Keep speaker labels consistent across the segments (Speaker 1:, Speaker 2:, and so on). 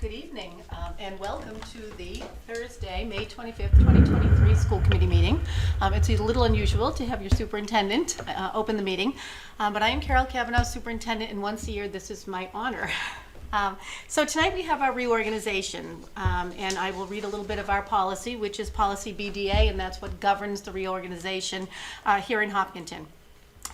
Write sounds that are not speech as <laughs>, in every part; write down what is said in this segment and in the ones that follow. Speaker 1: Good evening, um, and welcome to the Thursday, May 25th, 2023 School Committee meeting. Um, It's a little unusual to have your superintendent uh, open the meeting, um, but I am Carol Kavanaugh, superintendent, and once a year, this is my honor. <laughs> Um, So tonight, we have our reorganization, um, and I will read a little bit of our policy, which is policy BDA, and that's what governs the reorganization uh, here in Hopkinton.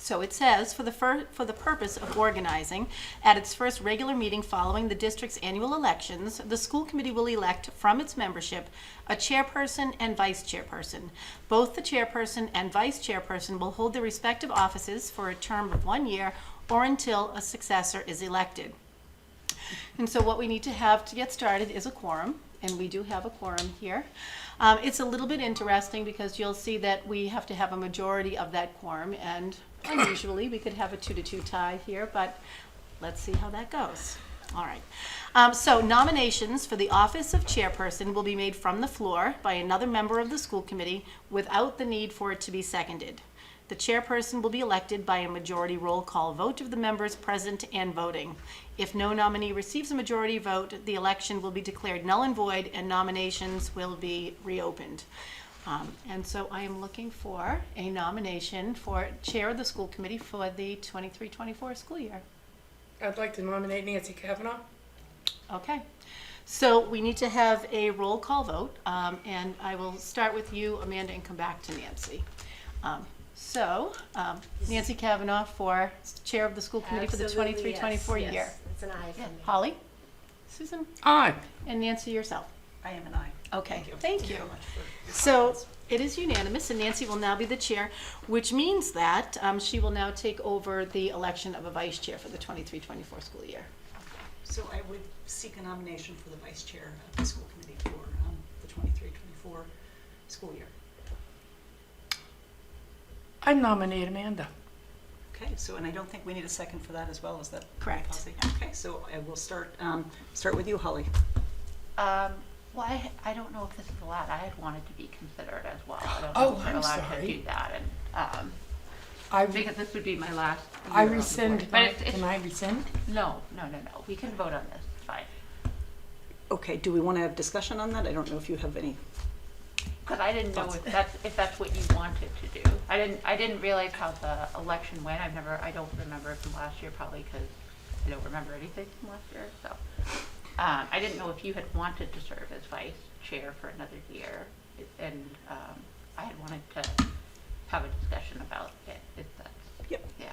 Speaker 1: So it says, for the fir- for the purpose of organizing, at its first regular meeting following the district's annual elections, the school committee will elect from its membership a chairperson and vice chairperson. Both the chairperson and vice chairperson will hold their respective offices for a term of one year or until a successor is elected. And so what we need to have to get started is a quorum, and we do have a quorum here. Um, it's a little bit interesting because you'll see that we have to have a majority of that quorum, and unusually, we could have a two to two tie here, but let's see how that goes. All right. Um, so nominations for the office of chairperson will be made from the floor by another member of the school committee without the need for it to be seconded. The chairperson will be elected by a majority roll call vote of the members present and voting. If no nominee receives a majority vote, the election will be declared null and void and nominations will be reopened. Um, And so I am looking for a nomination for Chair of the School Committee for the 23-24 school year.
Speaker 2: I'd like to nominate Nancy Kavanaugh.
Speaker 1: Okay. So we need to have a roll call vote, um, and I will start with you, Amanda, and come back to Nancy. Um, So um, Nancy Kavanaugh for Chair of the School Committee for the 23-24 year.
Speaker 3: It's an aye for me.
Speaker 1: Holly? Susan?
Speaker 2: Aye.
Speaker 1: And Nancy yourself?
Speaker 4: I am an aye.
Speaker 1: Okay, thank you. So it is unanimous, and Nancy will now be the chair, which means that um, she will now take over the election of a vice chair for the 23-24 school year.
Speaker 4: So I would seek a nomination for the vice chair of the school committee for um, the 23, 24 school year.
Speaker 2: I nominate Amanda.
Speaker 4: Okay, so, and I don't think we need a second for that as well, is that?
Speaker 1: Correct.
Speaker 4: policy? Okay, so I will start, um, start with you, Holly.
Speaker 5: Um, well, I, I don't know if this is allowed. I had wanted to be considered as well. I don't
Speaker 2: Oh,
Speaker 5: know if we're
Speaker 2: I'm
Speaker 5: allowed
Speaker 2: sorry.
Speaker 5: to do that, and um,
Speaker 2: I,
Speaker 5: because this would be my last. Year
Speaker 2: I
Speaker 5: on the board.
Speaker 2: rescind,
Speaker 5: But
Speaker 2: my-
Speaker 5: it's, it's,
Speaker 2: can I rescind?
Speaker 5: no, no, no, no. We can vote on this. It's fine.
Speaker 4: Okay, do we want to have discussion on that? I don't know if you have any.
Speaker 5: Because I didn't know if that's if that's what you wanted to do. I didn't I didn't realize how the election went. I've never I don't remember from last year probably because I don't remember anything from last year. So um, I didn't know if you had wanted to serve as vice chair for another year, and um, I had wanted to have a discussion about it. If that's
Speaker 4: Yep.
Speaker 5: yeah.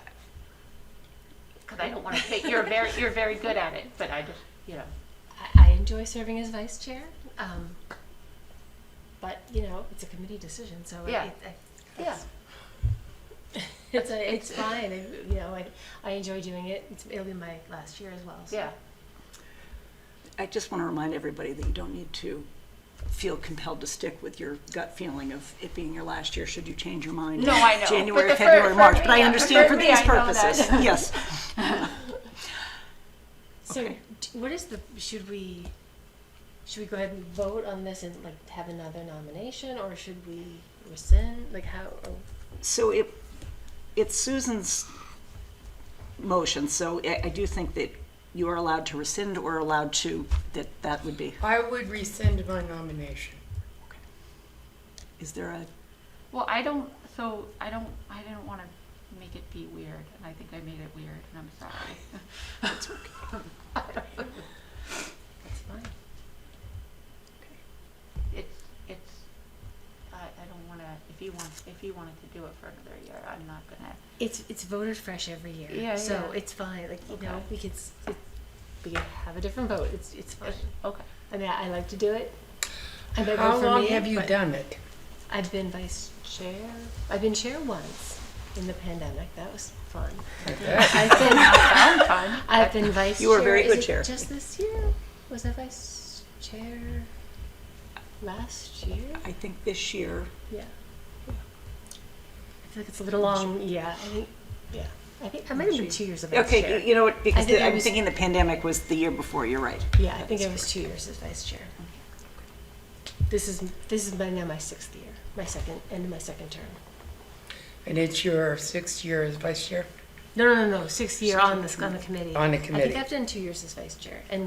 Speaker 5: Because I don't want to take you're very you're very good at it, but I just you know
Speaker 3: I, I enjoy serving as vice chair, um, but, you know, it's a committee decision, so it,
Speaker 5: Yeah.
Speaker 3: it-
Speaker 5: yeah.
Speaker 3: it's, a- it's fine, I- you know, I, I enjoy doing it, It's- it'll be my last year as well, so.
Speaker 5: Yeah,
Speaker 4: I just want to remind everybody that you don't need to feel compelled to stick with your gut feeling of it being your last year, should you change your mind.
Speaker 5: No, I know, but
Speaker 4: January,
Speaker 5: the fir-
Speaker 4: February,
Speaker 5: for
Speaker 4: March,
Speaker 5: me,
Speaker 4: but I
Speaker 5: yeah,
Speaker 4: understand
Speaker 5: for
Speaker 4: for
Speaker 5: me,
Speaker 4: these
Speaker 5: I know
Speaker 4: purposes,
Speaker 5: that.
Speaker 4: yes.
Speaker 3: So,
Speaker 4: Okay.
Speaker 3: d- what is the, should we, should we go ahead and vote on this and like have another nomination, or should we rescind, like how, oh, or-
Speaker 4: So it, it's Susan's motion, so I, I do think that you are allowed to rescind or allowed to, that that would be,
Speaker 2: I would rescind my nomination.
Speaker 4: is there a,
Speaker 5: Well, I don't, so I don't, I didn't want to make it be weird, and I think I made it weird, and I'm sorry.
Speaker 3: that's fine.
Speaker 5: It's, it's, I, I don't want to, if you want, if you wanted to do it for another year, I'm not gonna.
Speaker 3: It's it's voted fresh every year.
Speaker 5: Yeah,
Speaker 3: so
Speaker 5: yeah.
Speaker 3: it's fine. Like you know,
Speaker 5: Okay.
Speaker 3: we could s- it, we could have a different vote. It's it's fine.
Speaker 5: Okay.
Speaker 3: I mean, I, I like to do it. I might vote
Speaker 2: How
Speaker 3: for
Speaker 2: long
Speaker 3: me,
Speaker 2: have you
Speaker 3: but
Speaker 2: done it?
Speaker 3: I've been vice chair. I've been chair once in the pandemic. That was
Speaker 4: <laughs>
Speaker 3: fun. <laughs> I've been
Speaker 5: Sound fun.
Speaker 3: I've been vice.
Speaker 4: You were a very
Speaker 3: chair- is
Speaker 4: good
Speaker 3: it
Speaker 4: chair.
Speaker 3: Just this year was I vice chair. Last year,
Speaker 4: I think this year,
Speaker 3: yeah. I feel like it's a little long. Yeah, I think. Yeah, I think I might have been two years of vice chair.
Speaker 4: okay, you- you know what, because
Speaker 3: think
Speaker 4: the-
Speaker 3: I
Speaker 4: I'm
Speaker 3: was-
Speaker 4: thinking the pandemic was the year before, you're right.
Speaker 3: Yeah, I think I was two years as vice chair. This is, this is by now my sixth year, my second, end of my second term.
Speaker 2: And it's your sixth year as vice chair?
Speaker 3: No, no, no, no, sixth year on this, on the committee.
Speaker 2: On the
Speaker 3: I think
Speaker 2: committee.
Speaker 3: I've done two years as vice chair and